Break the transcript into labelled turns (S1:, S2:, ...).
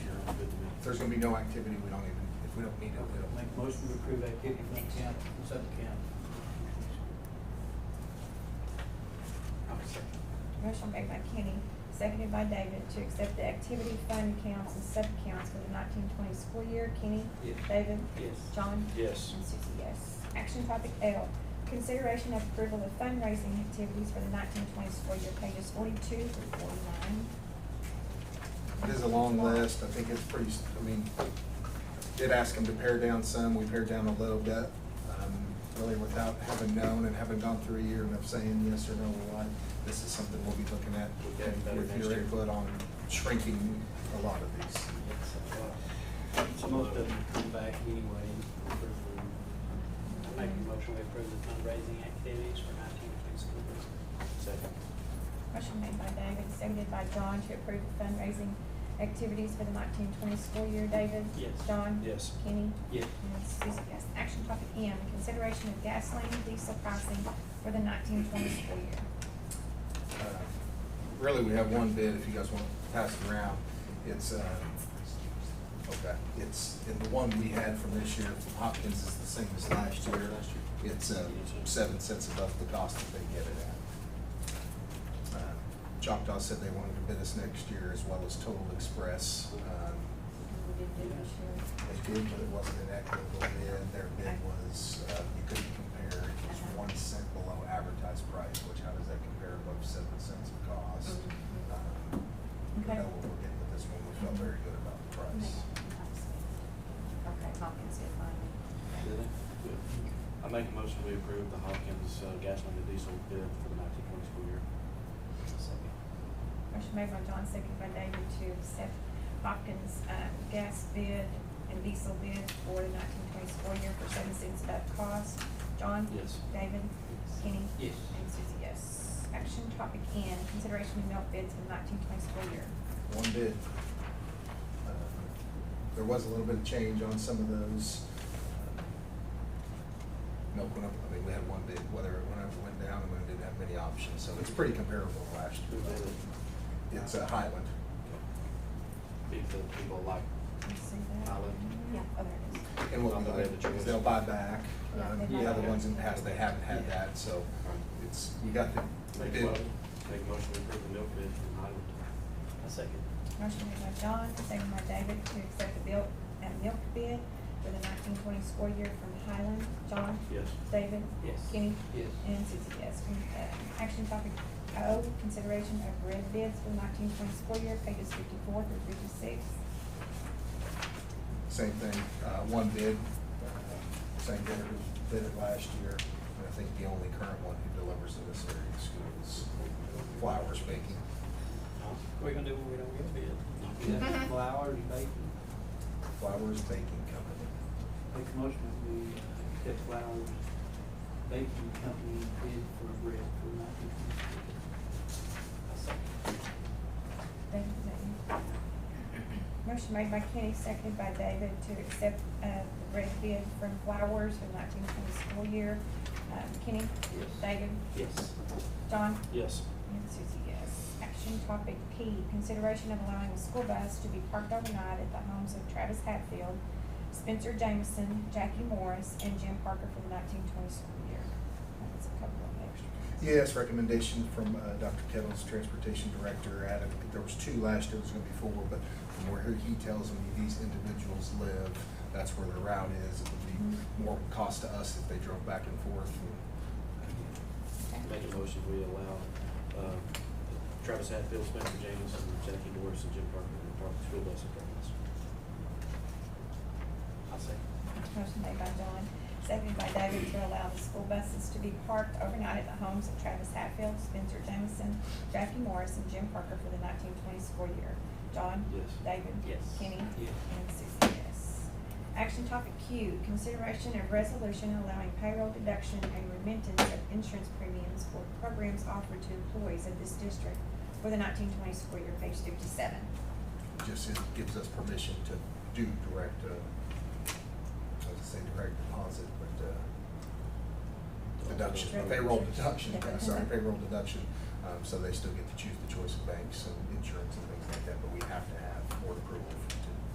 S1: If there's gonna be no activity, we don't even, if we don't need it, we don't.
S2: Make motion to approve activity from the county, consent county.
S3: Motion made by Kenny, seconded by David to accept the activity fund accounts and sub-accounts for the nineteen twenty school year. Kenny?
S2: Yes.
S3: David?
S2: Yes.
S3: John?
S4: Yes.
S3: And Susie, yes. Action topic L, consideration of approval of fundraising activities for the nineteen twenty school year, pages forty-two through forty-nine.
S1: It is a long list, I think it's pretty, s- I mean, did ask them to pare down some, we pared down a little bit. um, Really without having known and having gone through a year and of saying yes or no or what, this is something we'll be looking at.
S4: We'll get better
S1: With
S4: next
S1: your
S4: year.
S1: input on shrinking a lot of these.
S2: So most of them come back anyway. for- I Make a motion to approve the fundraising activities for nineteen twenty school year.
S4: Second.
S3: Motion made by David, seconded by John to approve the fundraising activities for the nineteen twenty school year. David?
S2: Yes.
S3: John?
S4: Yes.
S3: Kenny?
S2: Yes.
S3: And Susie, yes. Action topic M, consideration of gasoline and diesel pricing for the nineteen twenty school year.
S1: Uh, Really, we have one bid, if you guys want to pass it around. It's, uh, okay, it's, and the one we had from this year from Hopkins is the same as last year. It's uh, seven cents above the cost that they get it at. Uh, Choctaw said they wanted to bid us next year as well as Total Express. Um,
S3: We did do this year.
S1: They did, but it wasn't an equitable bid. Their bid was, uh, you couldn't compare, it was one cent below advertised price, which how does that compare above seven cents of cost? Um, We
S3: Okay.
S1: know what we're getting with this one, we felt very good about the price.
S3: Okay, Hopkins did fine.
S4: I make a motion we approve the Hopkins uh, gasoline and diesel bid for the nineteen twenty school year.
S3: Motion made by John, seconded by David to accept Hopkins, um, gas bid and diesel bid for the nineteen twenty school year for seven cents above cost. John?
S4: Yes.
S3: David? Kenny?
S2: Yes.
S3: And Susie, yes. Action topic N, consideration of milk bids for the nineteen twenty school year.
S1: One bid. Uh, There was a little bit of change on some of those. Uh, Milk went up, I mean, we had one bid, whether it went up or went down, and we didn't have many options, so it's pretty comparable to last
S4: Who
S1: year.
S4: did it?
S1: It's a Highland.
S4: People, people like,
S3: Can you see that?
S4: Highland.
S3: Yeah, oh, there it is.
S1: And what
S4: On
S1: we
S4: the way to
S1: like,
S4: choice.
S1: they'll buy back.
S3: Yeah,
S1: Um,
S3: they
S1: The
S3: buy
S1: other
S3: back.
S1: ones in the past, they haven't had
S4: Yeah.
S1: that, so it's, you got the
S4: make a
S1: bid.
S4: motion, make a motion we approve the milk bid from Highland.
S2: A second.
S3: Motion made by John, second by David to accept the bill, uh, milk bid for the nineteen twenty score year from Highland. John?
S4: Yes.
S3: David?
S2: Yes.
S3: Kenny?
S2: Yes.
S3: And Susie, yes. Con- uh, Action topic O, consideration of red bids for the nineteen twenty score year, pages fifty-four through fifty-six.
S1: Same thing, uh, one bid, uh, same bidder who bid it last year. And I think the only current one who delivers to this area of school is Flowers Baking.
S2: We're gonna do what we don't get bid. Yeah, Flowers, bacon.
S1: Flowers Baking Company.
S2: Make a motion that we uh, accept Flowers Baking Company bid for bread for nineteen twenty.
S3: Thank you, David. Motion made by Kenny, seconded by David to accept, uh, the red bid from Flowers for the nineteen twenty score year. Um, Kenny?
S2: Yes.
S3: David?
S2: Yes.
S3: John?
S4: Yes.
S3: And Susie, yes. Action topic P, consideration of allowing a school bus to be parked overnight at the homes of Travis Hatfield, Spencer Jameson, Jackie Morris, and Jim Parker for the nineteen twenty school year. That's a couple of extra.
S1: Yes, recommendation from uh, Dr. Kettles, Transportation Director, Adam, I think there was two last year, there's gonna be four, but from where he tells me these individuals live, that's where the route is. It would be more cost to us if they drove back and forth.
S4: Make a motion we allow uh, Travis Hatfield, Spencer James, and Jackie Morris, and Jim Parker to park the school bus at Douglas.
S2: I'll second.
S3: Motion made by John, seconded by David to allow the school buses to be parked overnight at the homes of Travis Hatfield, Spencer Jameson, Jackie Morris, and Jim Parker for the nineteen twenty school year. John?
S4: Yes.
S3: David?
S2: Yes.
S3: Kenny?
S2: Yes.
S3: And Susie, yes. Action topic Q, consideration of resolution allowing payroll deduction and remittance of insurance premiums for programs offered to employees of this district for the nineteen twenty school year, page fifty-seven.
S1: Just it gives us permission to do direct, uh, I was gonna say direct deposit, but, uh, deduction, payroll deduction, I'm sorry, payroll deduction. Um, so they still get to choose the choice of banks and insurance and things like that, but we have to have board approval for